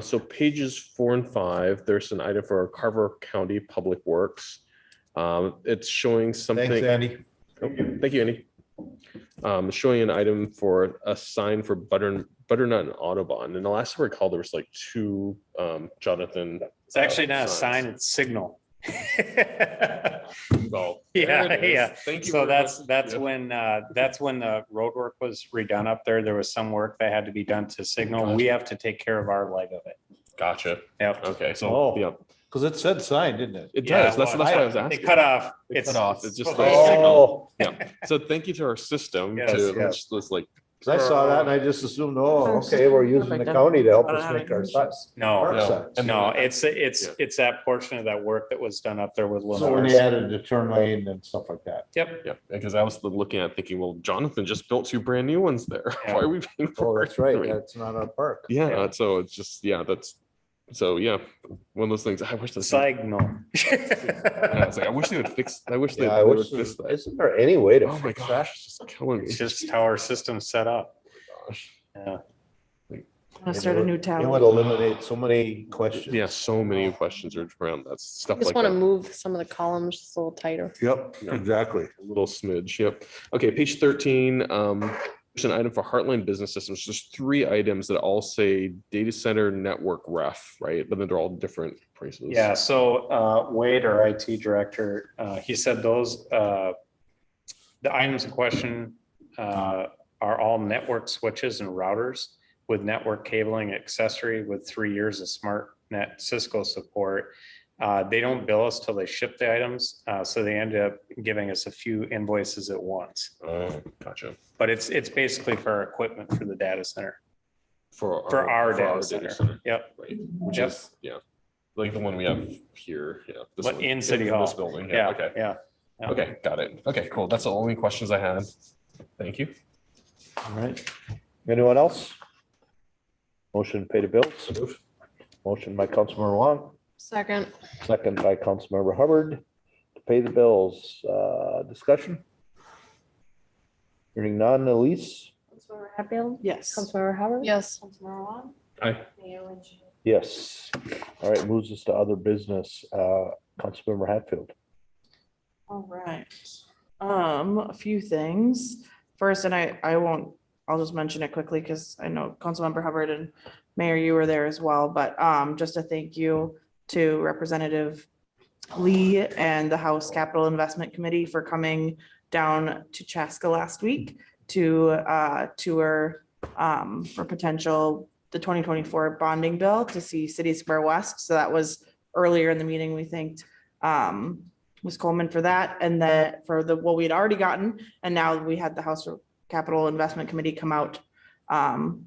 So pages four and five, there's an item for Carver County Public Works. Um, it's showing Thanks, something. Andy. Thank you. Thank you, Andy. Um, showing an item for a sign for butter, butternut and Audubon. And the last I recall, there was like two, um, Jonathan. It's actually not a Signs. sign, it's signal. Well, Yeah, there it is. yeah. Thank you. So very that's, much. that's Yep. when, uh, that's when the road work was redone up there. There was some work that had to be done to signal. We have to take care of our leg of it. Gotcha. Yep. Okay, so, Oh. yeah, Because it said sign, didn't it? it Yeah, does. That's, that's well, what I was They asking. cut off. They It's, cut off. it's It's just just. like- Oh, So thank you to our system Yes, to, yes. let's like, 'cause I saw that and I just assumed, oh, okay, we're using the county to help us make our signs. No, Park Oh, no. signs. And no, it's, it's, Yeah. it's that portion of that work that was done up there with So when Lenore's. they added the turn lane and stuff like that. Yep. Yeah, because I was looking at thinking, well, Jonathan just built two brand new ones there. Yeah. Why are we paying Oh, for it? that's right. I mean, That's not our park. Yeah, so it's just, yeah, that's, so yeah, one of those things, I wish this, yeah, Signal. it's like, I wish they would fix, I wish they Yeah, I they would wish, fix there- that. isn't there any way to Oh my fix that? gosh, it's just killing me. It's just how our system's set up. Oh Yeah. I'm gonna start a new It would tab. eliminate so many questions. Yeah, so many questions are around that stuff Just like want to that. move some of the columns just a little tighter. Yep, Yeah. exactly. A Little smidge, yep. Okay, page thirteen, um, there's an item for Heartland Business Systems. There's three items that all say data center network ref, right? But then they're all different prices. Yeah, so uh, Wade, our IT director, uh, he said those, uh, the items in question uh, are all network switches and routers with network cabling accessory with three years of smart net Cisco support. Uh, They don't bill us till they ship the items, uh, so they end up giving us a few invoices at once. Oh, gotcha. But it's, it's basically for our equipment for the data center. For For our data center. Yep, Right, which Yep. is, yeah, like the one we have here, yeah. this But one, in City This Hall. building, yeah, yeah, okay, yeah. yeah. okay, got it. Okay, cool. That's the only questions I had. Thank you. All right. Anyone else? Motion to pay the bills. Motion by Councilmember Wong. Second, Second by Councilmember Hubbard to pay the bills. Uh, discussion? Hearing none, Elise? Councilmember Hatfield? yes. Councilmember Howard? Yes. Councilmember Wong? Aye. Mayor Lynch? Yes. All right, moves us to other business. Uh, Councilmember Hatfield. All right. Um, a few things. First, and I, I won't, I'll just mention it quickly because I know Councilmember Hubbard and Mayor, you were there as well, but, um, just a thank you to Representative Lee and the House Capital Investment Committee for coming down to Chaska last week to, uh, tour, um, for potential, the twenty twenty-four bonding bill to see City Square West. So that was earlier in the meeting, we thanked, um, Ms. Coleman for that, and that for the, what we had already gotten, and now we had the House Capital Investment Committee come out um,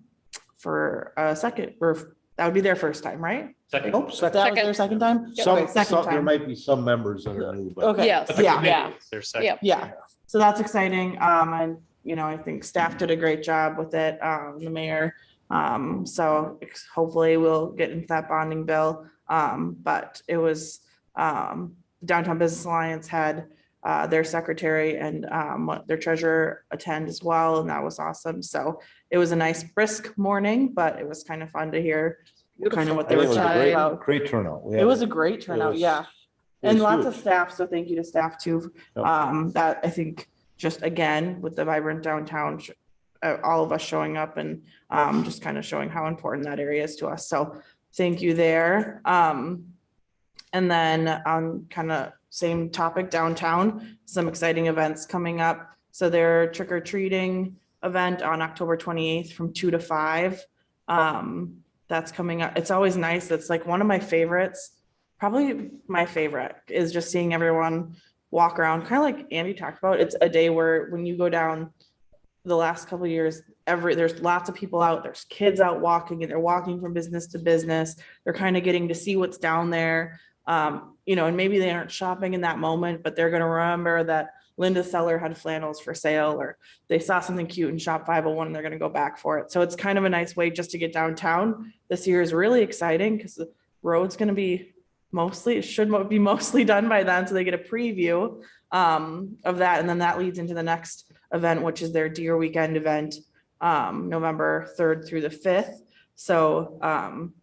for a second, or that would be their first time, right? Second. Oh, second. That was their second time? Some, Second some, there time. might be some members that are new, but Okay. Yes. Yeah. Yeah. Their second. Yeah, so that's exciting. Um, and, you know, I think staff did a great job with it, um, the mayor. Um, so ex- hopefully we'll get into that bonding bill. Um, but it was, um, Downtown Business Alliance had, uh, their secretary and, um, what- their treasurer attend as well, and that was awesome. So it was a nice brisk morning, but kind of fun to hear. kind of fun to hear kind of what they I think it were was a talking great- about. great turnout. We It had- was a great turnout, was- yeah. it And was lots of huge. staff, so thank you to staff too. Yep. Um, that I think just again with the vibrant downtown, sh- uh, all of us showing up and um, just kind of showing how important that area is to us. So thank you there. Um, and then on kind of same topic downtown, some exciting events coming up. So their trick or treating event on October twenty-eighth from two to five. Um, that's coming up. It's always nice. It's like one of my favorites. Probably my favorite is just seeing everyone walk around, kind of like Andy talked about. It's a day where when you go down the last couple of years, every, there's lots of people out, there's kids out walking and they're walking from business to business. They're kind of getting to see what's down there. Um, you know, and maybe they aren't shopping in that moment, but they're gonna remember that Linda Seller had flannels for sale or they saw something cute in shop five oh one and they're gonna go back for it. So it's kind of a nice way just to get downtown. This year is really exciting because the road's gonna be mostly, it should mo- be mostly done by then, so they get a preview um of that. And then that leads into the next event, which is their Deer Weekend event, um, November third through the fifth. So um